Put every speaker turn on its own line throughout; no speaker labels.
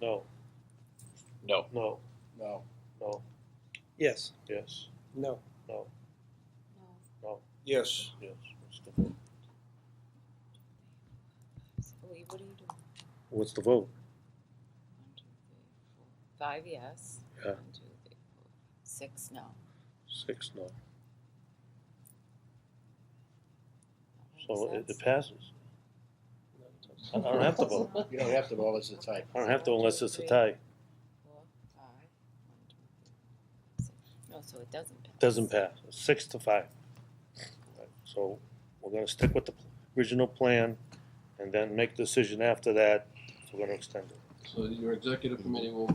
No,
No.
no,
No.
no,
Yes,
yes,
no,
no, no,
Yes.
yes. What's the vote?
Wait, what are you doing? One,
What's the vote?
two, three, four, Five yes.
Yeah.
One, two, three, four, six no.
Six, no.
So it
Six.
it passes. I I don't have to vote.
You don't have to vote as a type.
I don't have to unless it's a tie.
Four, five, one, two, three, six. No, so it doesn't pass.
Doesn't pass. It's Six to five. So we're gonna stick with the original plan and then make a decision after that. if We're gonna extend it.
So your executive committee will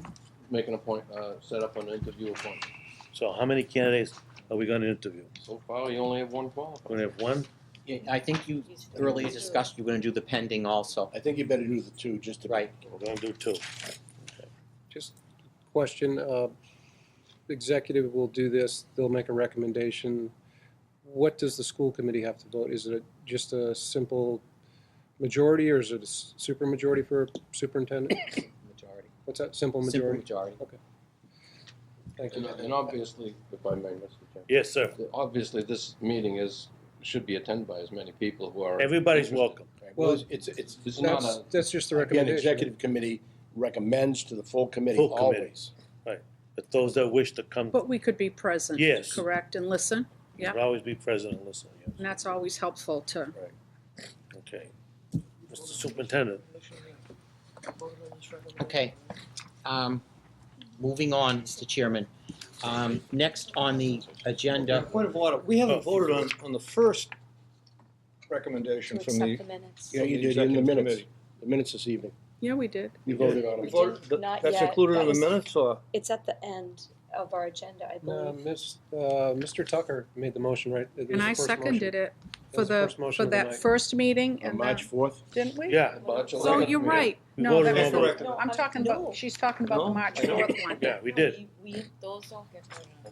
make an appoint, uh, set up an interview appointment.
So how many candidates are we gonna interview?
So far, you only have one qualified.
We're gonna have one?
Yeah, I think you
He's-
earlier discussed you're gonna do the pending also,
I think you better do the two, just to.
right?
We're gonna do two.
just question, uh, executive will do this, they'll make a recommendation. What does the school committee have to vote? Is it just a simple majority or is it a s- supermajority for superintendent?
Majority.
What's that, simple
Simple
majority?
majority.
Thank
And,
you.
and obviously, if I may, Mr. Chairman,
Yes, sir.
obviously, this meeting is, should be attended by as many people who are.
Everybody's
interested.
welcome.
Right,
Well,
Well, it's, it's,
It's not
That's,
a,
that's just the
again,
recommendation.
executive committee recommends to the full committee
Full committee.
always.
But those that wish to come,
But we could be present.
Yes.
Correct, and listen, yeah.
will always be present and listen, yes.
and that's always helpful to,
Okay. Mr. Superintendent,
Okay. Um, moving on, Mr. Chairman. Um, next on the agenda,
Point of order, we
Oh,
haven't voted on, on the first recommendation
To accept the minutes.
Yeah, you did in the minutes, the minutes this evening.
yeah, we did.
You voted on it.
Not yet. That was-
minutes, or?
It's at the end of our agenda, I
Uh,
believe.
Miss, uh, Mr. Tucker made the motion, right? It was
And
the
I
first motion.
seconded it
That
for
was
the,
first motion
for
of the
that
night.
first meeting
On
and
March
then,
fourth,
didn't we?
yeah,
So you're right,
We
no, that
voted
was,
on
the-
it.
no, I'm talking about, she's talking about the
No,
March
I know.
fourth one.
yeah, we did.
We, we- those don't get voted on.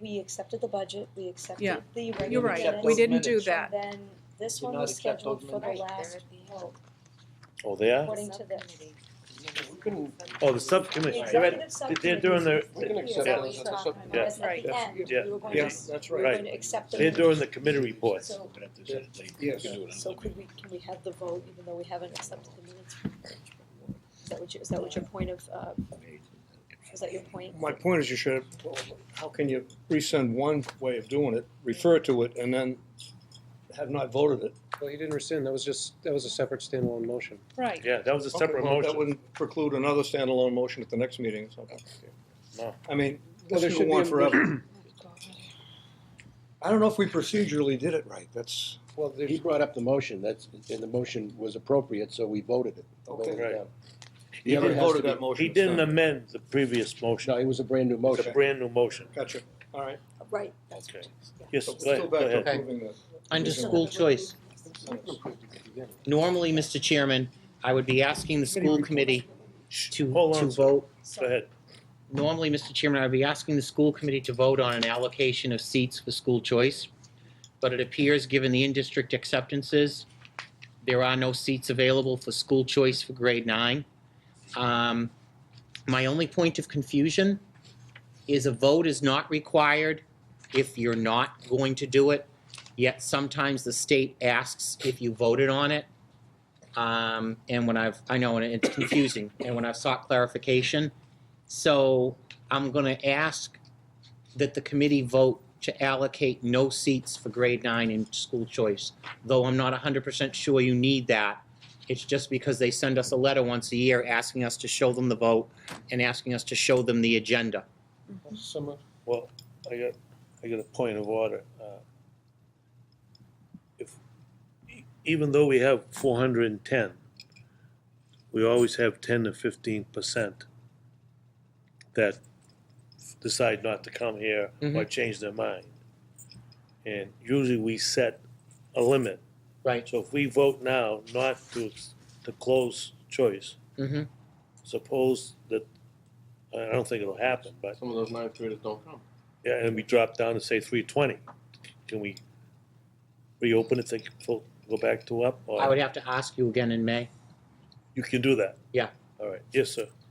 We accepted the budget, we
Yeah.
accepted the regular minutes.
You're right, we didn't do that.
And then this
Did
one
not
was
accept those
scheduled for the
minutes.
last vote,
Oh, they are?
according to the.
Oh, the subcommittee, they're at,
executive subcommittee.
they're doing their,
We can accept
yeah,
those as a subcommittee.
Yeah.
Because at the
Right.
end,
Yeah.
we were going to,
Yes, that's
we were
right.
Right.
going to accept the
they're
minutes.
doing the committee reports.
So,
Yes.
so could we, can we have the vote even though we haven't accepted the minutes? Is that what you, is that what your point of, uh, is that your point?
My point is you should, how can you resend one way of doing it, refer to it, and then have not voted it?
Well, he didn't rescind, that was just, that was a separate standalone motion.
Right.
Yeah, that was a separate
Okay, well, That
motion.
wouldn't preclude another standalone motion at the next meeting or something.
No.
I mean, this
Well, there
is
should be
go on
a-
forever. I don't know if we procedurally did it right, that's,
Well, there's,
he brought up the motion, that's, and the motion was appropriate, so we voted it.
Okay.
Voted it down.
you
other has
haven't
to
voted
be-
that motion.
He
it's
didn't
done.
amend the previous motion,
No, it was a brand new
it's a
motion.
brand new motion.
Gotcha, all right.
Right.
Okay. Yes,
So
go
we're still
ahead, go
back to
ahead.
Okay.
approving the.
under school choice. Normally, Mr. Chairman, I would be asking the school committee to,
Hold on,
to
sir.
vote
Go ahead.
normally, Mr. Chairman, I'd be asking the school committee to vote on an allocation of seats for school choice, but it appears, given the in-district acceptances, there are no seats available for school choice for grade nine. Um, My only point of confusion is a vote is not required if you're not going to do it, yet sometimes the state asks if you voted on it. Um, And when I've, I know, and it's confusing, and when I've sought clarification, so I'm going to ask that the committee vote to allocate no seats for grade nine in school choice, though I'm not 100% sure you need that. It's just because they send us a letter once a year asking us to show them the vote and asking us to show them the agenda.
some, of-
Well, I got, I got a point of order. Uh, If, e- even though we have four hundred and ten, we always have ten to fifteen percent that decide not to come here or
Mhm.
change their mind. And usually we set a limit.
Right.
So if we vote now not to, to close choice,
Mm-hmm.
suppose that, I don't think it'll happen, but
Some of those ninth graders don't come.
yeah, and we drop down to say three twenty. Can we reopen it, think, full- go back to up? or-
I would have to ask you again in May.
You can do that?
Yeah.
All right, yes, sir.